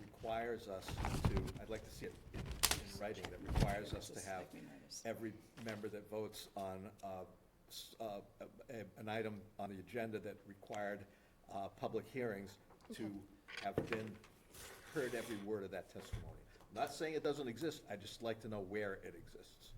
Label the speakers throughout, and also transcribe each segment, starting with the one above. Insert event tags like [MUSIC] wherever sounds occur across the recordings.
Speaker 1: requires us to, I'd like to see it in in writing, that requires us to have every member that votes on uh, s- uh, a- a- an item on the agenda that required uh, public hearings to have been, heard every word of that testimony. Not saying it doesn't exist, I'd just like to know where it exists.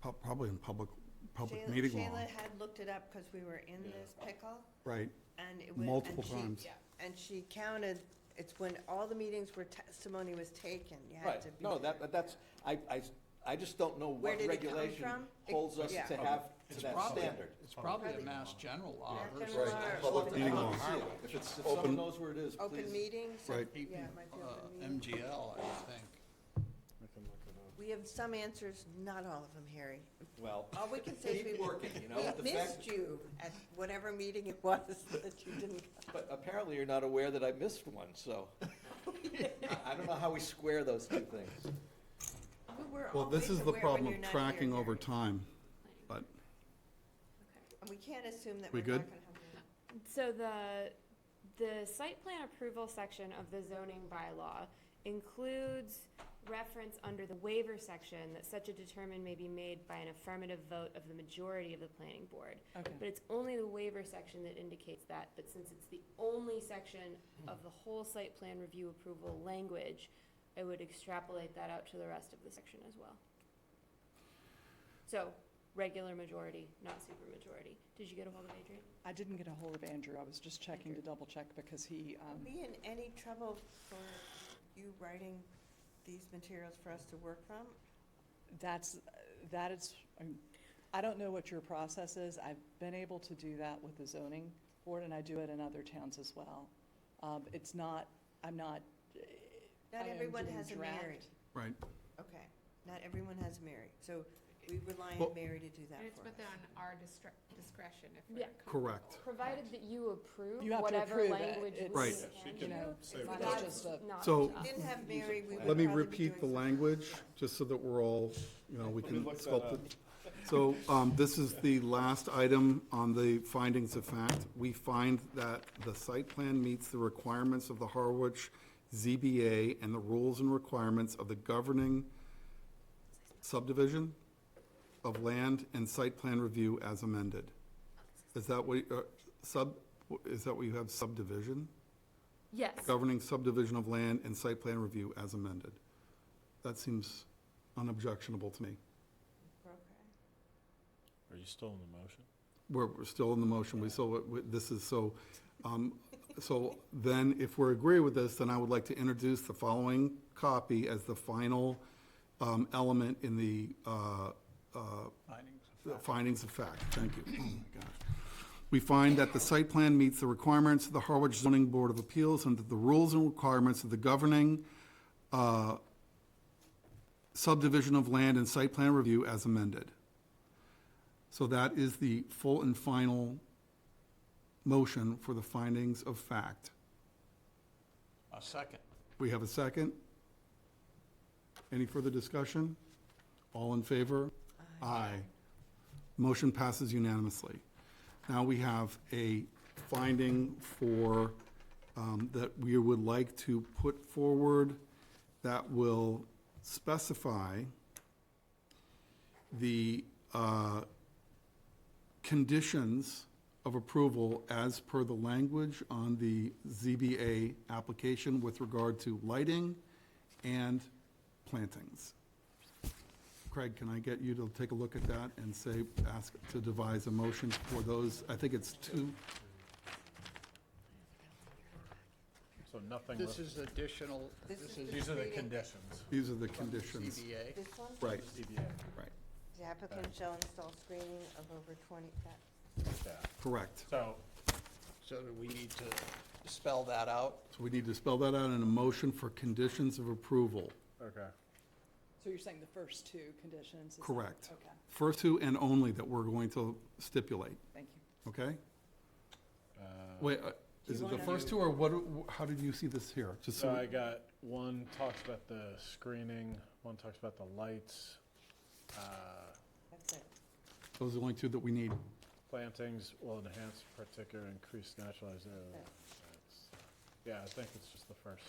Speaker 2: Prob- Probably in public, public
Speaker 3: Shayla-
Speaker 2: meeting law,
Speaker 3: Shayla had looked it up because we were in this pickle
Speaker 2: right?
Speaker 3: and it was.
Speaker 2: Multiple
Speaker 3: and she-
Speaker 2: times.
Speaker 3: yeah, And she counted, it's when all the meetings where testimony was taken, you had
Speaker 1: Right,
Speaker 3: to be.
Speaker 1: no,
Speaker 3: there.
Speaker 1: that, but that's, I, I, I just don't know
Speaker 3: Where
Speaker 1: what
Speaker 3: did it come
Speaker 1: regulation
Speaker 3: from? It-
Speaker 1: holds us
Speaker 3: yeah.
Speaker 1: to have to
Speaker 4: It's
Speaker 1: that
Speaker 4: probably-
Speaker 1: standard.
Speaker 4: It's probably a
Speaker 3: Probably-
Speaker 4: mass general law
Speaker 3: Mass
Speaker 4: versus.
Speaker 3: general
Speaker 4: an
Speaker 3: law or
Speaker 4: actual
Speaker 3: open
Speaker 2: Meeting law.
Speaker 4: highway.
Speaker 1: If it's, if someone knows where it is,
Speaker 3: Open
Speaker 1: please.
Speaker 3: meetings.
Speaker 2: Right.
Speaker 3: Yeah, it might be
Speaker 4: Uh,
Speaker 3: open meeting.
Speaker 4: MGL, I would think.
Speaker 3: We have some answers, not all of them, Harry.
Speaker 1: Well,
Speaker 3: All
Speaker 1: [LAUGHS]
Speaker 3: we can say is we.
Speaker 1: keep working, you know? the
Speaker 3: We
Speaker 1: fact-
Speaker 3: missed you at whatever meeting it was [LAUGHS] that you didn't.
Speaker 1: But apparently you're not aware that I missed one,
Speaker 3: [LAUGHS]
Speaker 1: so. I- I don't know how we square those two things.
Speaker 3: We were
Speaker 2: Well, this
Speaker 3: always
Speaker 2: is the
Speaker 3: aware when
Speaker 2: problem
Speaker 3: you're
Speaker 2: of
Speaker 3: not here,
Speaker 2: tracking over
Speaker 3: Harry.
Speaker 2: time, but
Speaker 3: And we can't assume that
Speaker 2: We
Speaker 3: we're not
Speaker 2: good?
Speaker 3: gonna have. meetings.
Speaker 5: So the, the site plan approval section of the zoning bylaw includes reference under the waiver section that such a determine may be made by an affirmative vote of the majority of the planning board. But it's only the waiver section that indicates that, but since it's the only section of the whole site plan review approval language, I would extrapolate that out to the rest of the section as well. So, regular majority, not super majority. Did you get a hold of Adrian?
Speaker 6: I didn't get a hold of Andrew. I was just checking to double check because he, um,
Speaker 3: Be in any trouble for you writing these materials for us to work from?
Speaker 6: that's, that is, I'm- I don't know what your process is. I've been able to do that with the zoning board and I do it in other towns as well. Um, It's not, I'm not. eh, I
Speaker 3: Not
Speaker 6: am
Speaker 3: everyone
Speaker 6: doing
Speaker 3: has a
Speaker 6: draft.
Speaker 3: Mary.
Speaker 2: right.
Speaker 3: Okay, not everyone has a Mary, so we rely
Speaker 2: Well-
Speaker 3: on Mary to do that
Speaker 7: And it's
Speaker 3: for us.
Speaker 7: within our distra- discretion if
Speaker 5: Yeah.
Speaker 7: we're.
Speaker 2: Correct.
Speaker 5: Provided that you approve
Speaker 6: You have to
Speaker 5: whatever
Speaker 6: approve it.
Speaker 5: language we
Speaker 6: It's-
Speaker 2: Right.
Speaker 5: can.
Speaker 6: you know,
Speaker 5: That's
Speaker 6: That's just a-
Speaker 5: not
Speaker 2: So-
Speaker 5: enough.
Speaker 3: Didn't have Mary, we would
Speaker 2: Let me
Speaker 3: probably be
Speaker 2: repeat
Speaker 3: doing
Speaker 2: the
Speaker 3: something.
Speaker 2: language, just so that we're all, you know, we can sculpt it. So um, this is the last item on the findings of fact. We find that the site plan meets the requirements of the Harwich ZBA and the rules and requirements of the governing subdivision of land and site plan review as amended. Is that what, uh, sub, is that what you have subdivision?
Speaker 5: Yes,
Speaker 2: governing subdivision of land and site plan review as amended. That seems unobjectionable to me.
Speaker 3: Okay.
Speaker 8: Are you still in the motion?
Speaker 2: We're, we're still in the motion, we still, we- this is so, um, so then if we agree with this, then I would like to introduce the following copy as the final, um, element in the, uh, uh,
Speaker 4: Findings of
Speaker 2: The
Speaker 4: fact.
Speaker 2: Findings of fact, thank you. Oh my gosh. We find that the site plan meets the requirements of the Harwich Zoning Board of Appeals and that the rules and requirements of the governing uh, subdivision of land and site plan review as amended. So that is the full and final motion for the findings of fact.
Speaker 4: A second.
Speaker 2: We have a second? Any further discussion? All in favor? Aye. Motion passes unanimously. Now we have a finding for, um, that we would like to put forward that will specify the, uh, conditions of approval as per the language on the ZBA application with regard to lighting and plantings. Craig, can I get you to take a look at that and say, ask to devise a motion for those? I think it's two,
Speaker 8: So nothing
Speaker 4: This
Speaker 8: left,
Speaker 4: is additional,
Speaker 3: This
Speaker 4: this
Speaker 3: is
Speaker 4: is.
Speaker 8: these are the conditions.
Speaker 2: these are the
Speaker 4: from the
Speaker 2: conditions.
Speaker 4: CBA.
Speaker 3: This one,
Speaker 2: Right,
Speaker 8: CBA,
Speaker 2: right,
Speaker 3: the applicant shall install screening of over twenty, that,
Speaker 8: yeah.
Speaker 2: correct.
Speaker 8: So,
Speaker 4: So do we need to spell that out?
Speaker 2: So we need to spell that out in a motion for conditions of approval,
Speaker 8: okay.
Speaker 6: So you're saying the first two conditions? is-
Speaker 2: correct.
Speaker 6: Okay,
Speaker 2: First two and only that we're going to stipulate,
Speaker 6: thank you.
Speaker 2: okay?
Speaker 8: Uh,
Speaker 2: Wait, uh,
Speaker 6: Do
Speaker 2: is
Speaker 6: you
Speaker 2: it the
Speaker 6: wanna-
Speaker 2: first two, or what, wh- how did you see this here? Just
Speaker 8: So I
Speaker 2: so,
Speaker 8: got, one talks about the screening, one talks about the lights, uh,
Speaker 3: that's it.
Speaker 2: those are the only two that we need.
Speaker 8: plantings will enhance particular increased naturalized area. That's- Yeah, I think it's just the first.